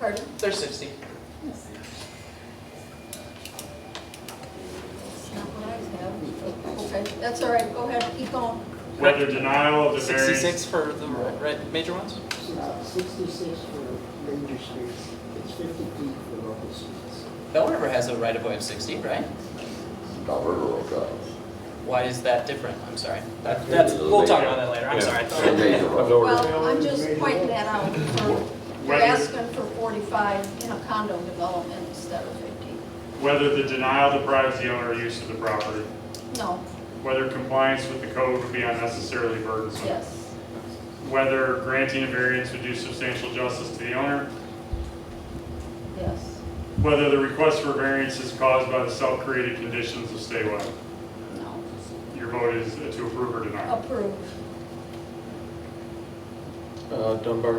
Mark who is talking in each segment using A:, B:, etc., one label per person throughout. A: Pardon?
B: They're 60.
A: It's not what I have. Okay, that's all right, go ahead, keep going.
C: Whether denial of the variance.
B: 66 for the ri- right, major ones?
D: Sixty-six for major streets, it's fifty feet for local streets.
B: Bell River has a right of way of 60, right?
E: Bell River Road Drive.
B: Why is that different? I'm sorry. That- That's, we'll talk about that later, I'm
F: Yeah.
B: sorry.
E: It's a major road.
A: Well, I'm just pointing that out. for- You're
C: Whether-
A: asking for 45 in a condo development instead of 50.
C: Whether the denial deprives the owner use of the property.
A: No,
C: Whether compliance with the code would be unnecessarily burdensome.
A: yes,
C: Whether granting a variance would do substantial justice to the owner.
A: yes,
C: Whether the request for variance is caused by the self-created conditions of statewide.
A: no,
C: Your vote is to approve or deny.
A: approve,
G: Uh, Dunbar,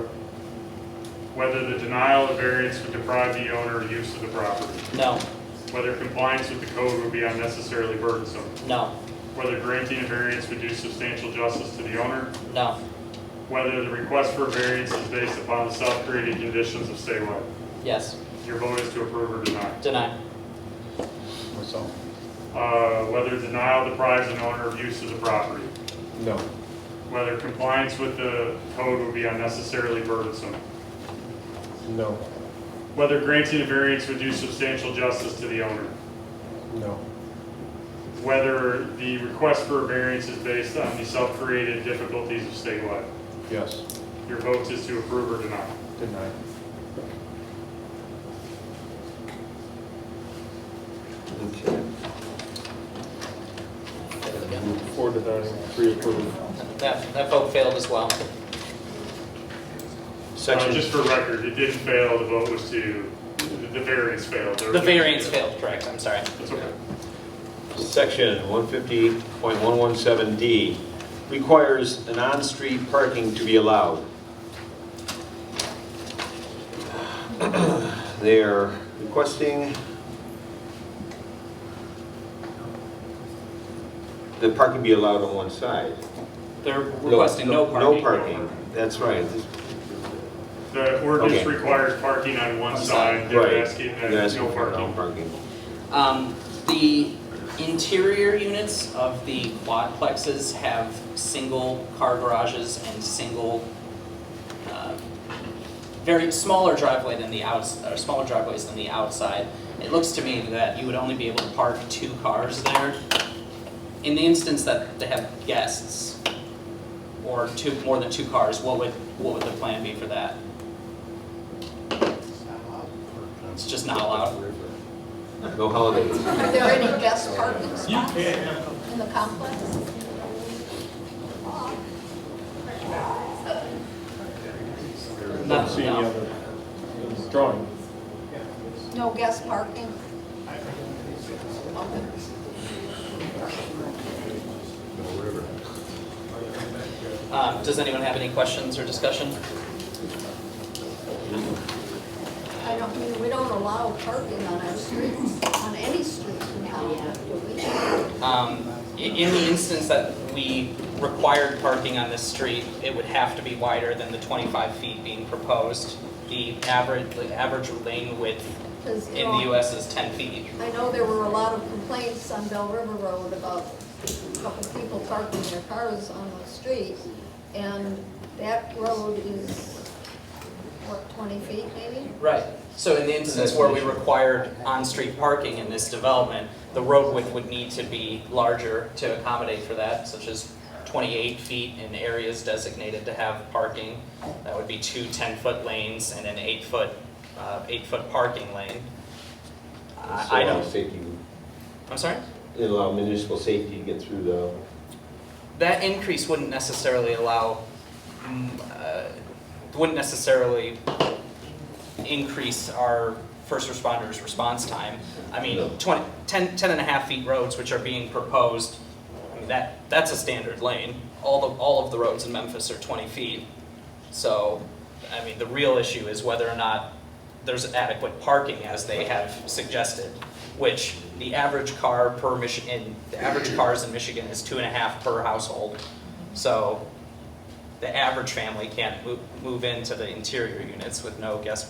C: Whether the denial of variance would deprive the owner use of the property.
B: No,
C: Whether compliance with the code would be unnecessarily burdensome.
B: no,
C: Whether granting a variance would do substantial justice to the owner.
B: no,
C: Whether the request for variance is based upon the self-created conditions of statewide.
B: yes,
C: Your vote is to approve or deny.
B: deny.
G: myself.
C: Uh, Whether denial deprives an owner of use of the property.
G: No.
C: Whether compliance with the code would be unnecessarily burdensome.
G: No.
C: Whether granting a variance would do substantial justice to the owner.
G: No.
C: Whether the request for a variance is based on the self-created difficulties of statewide.
G: Yes.
C: Your vote is to approve or deny. Uh,
G: Denied.
F: Okay.
G: Four denying, three approved.
B: That, that vote failed as well.
C: Uh,
F: Section,
C: Just for record, it didn't fail, the vote was to, the- the variance failed. There
B: The
C: was-
B: variance failed, correct, I'm sorry.
C: That's okay.
F: section 158.117D requires an on-street parking to be allowed. They're requesting the parking be allowed on one side.
B: They're requesting no parking.
F: No parking, that's right.
C: The ordinance
F: Okay.
C: requires parking on one
B: One side.
C: side, they're
F: Right.
C: asking that
F: They're asking
C: no
F: for no
C: parking.
F: parking.
B: Um, The interior units of the quadplexes have single car garages and single, uh, very smaller driveway than the outs, or smaller driveways than the outside. It looks to me that you would only be able to park two cars there. In the instance that they have guests or two, more than two cars, what would, what would the plan be for that? It's just not allowed.
F: No holidays.
A: Are there any guest parking spots in the complex?
B: Not,
G: See any
B: no.
G: other drawing?
A: No guest parking? Okay.
B: Um, Does anyone have any questions or discussion?
A: I don't, I mean, we don't allow parking on our streets, on any streets in town, do we?
B: Um, i- In the instance that we required parking on this street, it would have to be wider than the 25 feet being proposed. The average, the average lane width
A: 'Cause, you
B: in
A: know,
B: the US is 10 feet.
A: I know there were a lot of complaints on Bell River Road about a couple people parking their cars on the street, and that road is, what, 20 feet maybe?
B: Right. So in the instance where we required on-street parking in this development, the road width would need to be larger to accommodate for that, such as 28 feet in areas designated to have parking. That would be two 10-foot lanes and an eight-foot, uh, eight-foot parking lane. I I
F: Allow
B: don't,
F: Safety,
B: I'm sorry?
F: it'll allow municipal safety to get through the,
B: That increase wouldn't necessarily allow, mm, uh, wouldn't necessarily increase our first responders' response time. I
F: No.
B: mean, 20, 10, 10 and a half feet roads which are being proposed, I mean, that, that's a standard lane. All the, all of the roads in Memphis are 20 feet. So, I mean, the real issue is whether or not there's adequate parking as they have suggested, which the average car per Michigan, the average cars in Michigan is two and a half per household. So the average family can't move, move into the interior units with no guest